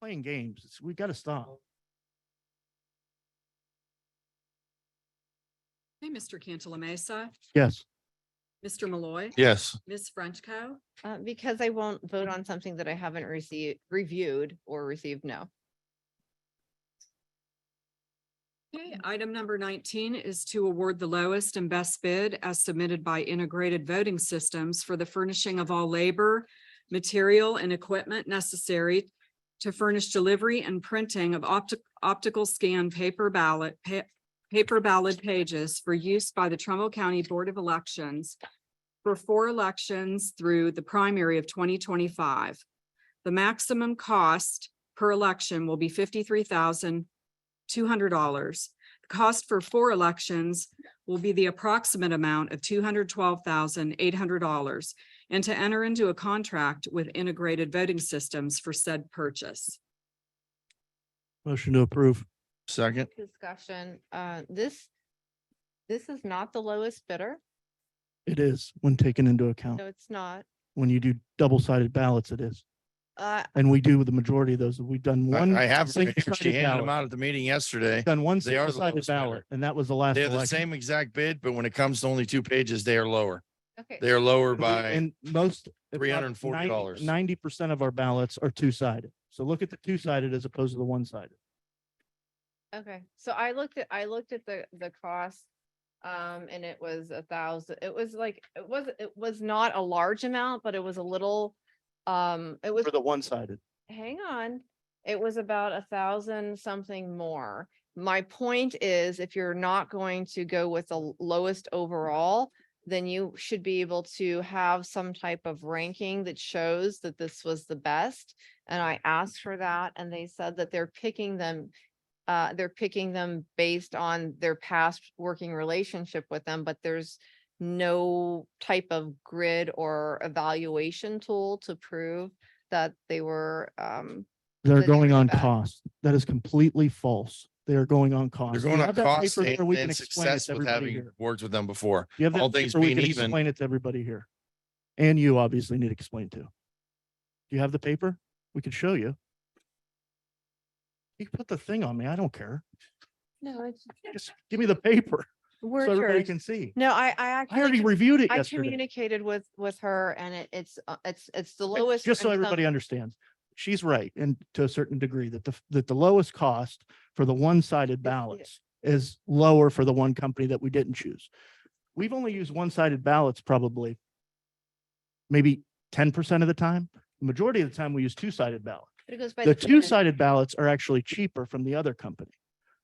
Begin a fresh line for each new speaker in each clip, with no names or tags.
playing games. It's- We gotta stop.
Hey, Mr. Cantala Mesa,
Yes.
Mr. Malloy,
Yes.
Ms. Frenchco.
Uh, because I won't vote on something that I haven't received, reviewed or received no.
Okay, item number nineteen is to award the lowest and best bid as submitted by Integrated Voting Systems for the furnishing of all labor, material, and equipment necessary to furnish delivery and printing of optic, optical scan paper ballot, pa- paper ballot pages for use by the Trumbull County Board of Elections for four elections through the primary of twenty twenty-five. The maximum cost per election will be fifty-three thousand two hundred dollars. The cost for four elections will be the approximate amount of two hundred twelve thousand eight hundred dollars and to enter into a contract with integrated voting systems for said purchase.
Motion to approve.
Second.
Discussion, uh, this, this is not the lowest bidder,
It is when taken into account.
no, it's not.
When you do double-sided ballots, it is.
Uh,
And we do with the majority of those. We've done one.
I I have, them here.
single-sided
she handed them
ballot.
out at the meeting yesterday.
Done one
They are the
single-sided
lowest bidder.
ballot, and that was the last
They're the
election.
same exact bid, but when it comes to only two pages, they are lower.
okay.
They are lower
We-
by,
And most.
$340.
Ninety percent of our ballots are two-sided. So look at the two-sided as opposed to the one-sided.
Okay, so I looked at, I looked at the, the cost, um, and it was a thousand, it was like, it was, it was not a large amount, but it was a little, um, it was,
For the one-sided.
hang on, it was about a thousand something more. My point is, if you're not going to go with the l- lowest overall, then you should be able to have some type of ranking that shows that this was the best. And I asked for that and they said that they're picking them uh, they're picking them based on their past working relationship with them, but there's no type of grid or evaluation tool to prove that they were, um,
They're
that they
going
were
on
bad.
cost. That is completely false. They are going on cost.
they're
We
going on
have that
cost
paper there.
and
We can
and
explain it to
success with
everybody
having
here.
worked with them before.
You have
all
that
things
paper, we
being
can
even-
explain it to everybody here. And you obviously need to explain too. Do you have the paper? We could show you. You can put the thing on me. I don't care.
no, it's
Just give me the paper so
word
everybody
church.
can see.
No, I, I
I already
actually,
reviewed it
I
yesterday.
communicated with, with her and it, it's, uh, it's, it's the
Okay,
lowest.
Just so
and some-
everybody understands, she's right, and to a certain degree, that the, f- that the lowest cost for the one-sided ballots is lower for the one company that we didn't choose. We've only used one-sided ballots probably maybe ten percent of the time. Majority of the time, we use two-sided ballots.
But it goes by
The
bid.
two-sided ballots are actually cheaper from the other company.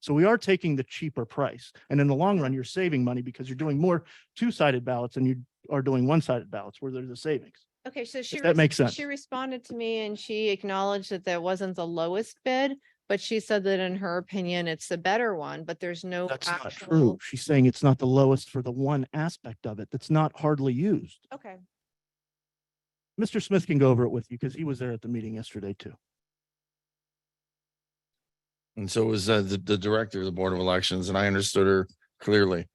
So we are taking the cheaper price. And in the long run, you're saving money because you're doing more two-sided ballots than you are doing one-sided ballots where there's a savings.
Okay, so she.
If that
res-
makes sense.
She responded to me and she acknowledged that that wasn't the lowest bid, but she said that in her opinion, it's the better one, but there's no.
That's not true.
actual-
She's saying it's not the lowest for the one aspect of it that's not hardly used.
Okay,
Mr. Smith can go over it with you because he was there at the meeting yesterday too.
And so was uh, the, the director of the Board of Elections and I understood her clearly.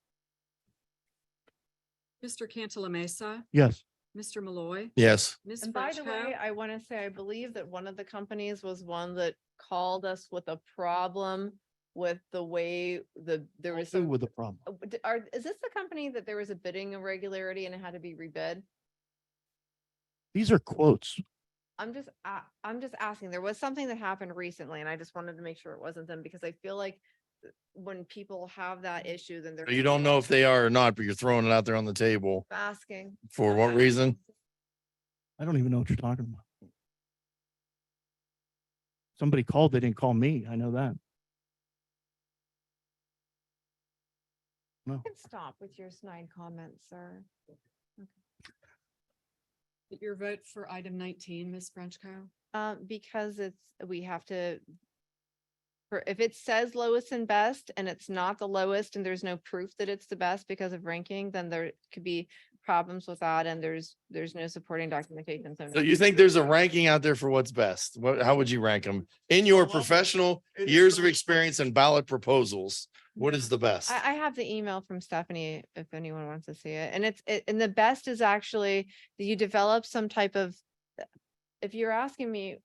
Mr. Cantala Mesa,
Yes,
Mr. Malloy,
Yes.
Ms.
and by the way,
Frenchco.
I want to say, I believe that one of the companies was one that called us with a problem with the way the, there was
who
some.
with the problem?
uh, d- Are, is this the company that there was a bidding irregularity and it had to be rebid?
These are quotes.
I'm just, uh, I'm just asking, there was something that happened recently and I just wanted to make sure it wasn't them because I feel like th- when people have that issue, then they're.
Mm-hmm. You don't know if they are or not, but you're throwing it out there on the table.
Asking.
For
Uh-huh.
what reason?
I don't even know what you're talking about. Somebody called, they didn't call me. I know that.
You can Stop with your snide comments, sir.
Your vote for item nineteen, Ms. Frenchco.
Uh, because it's, we have to. For, if it says lowest and best and it's not the lowest and there's no proof that it's the best because of ranking, then there could be problems with that and there's, there's no supporting documentation.
So
no.
you think there's a ranking out there for what's best? What, how would you rank them? In your professional years of experience and ballot proposals, what is the best?
I, I have the email from Stephanie if anyone wants to see it. And it's, it- and the best is actually that you develop some type of, if you're asking me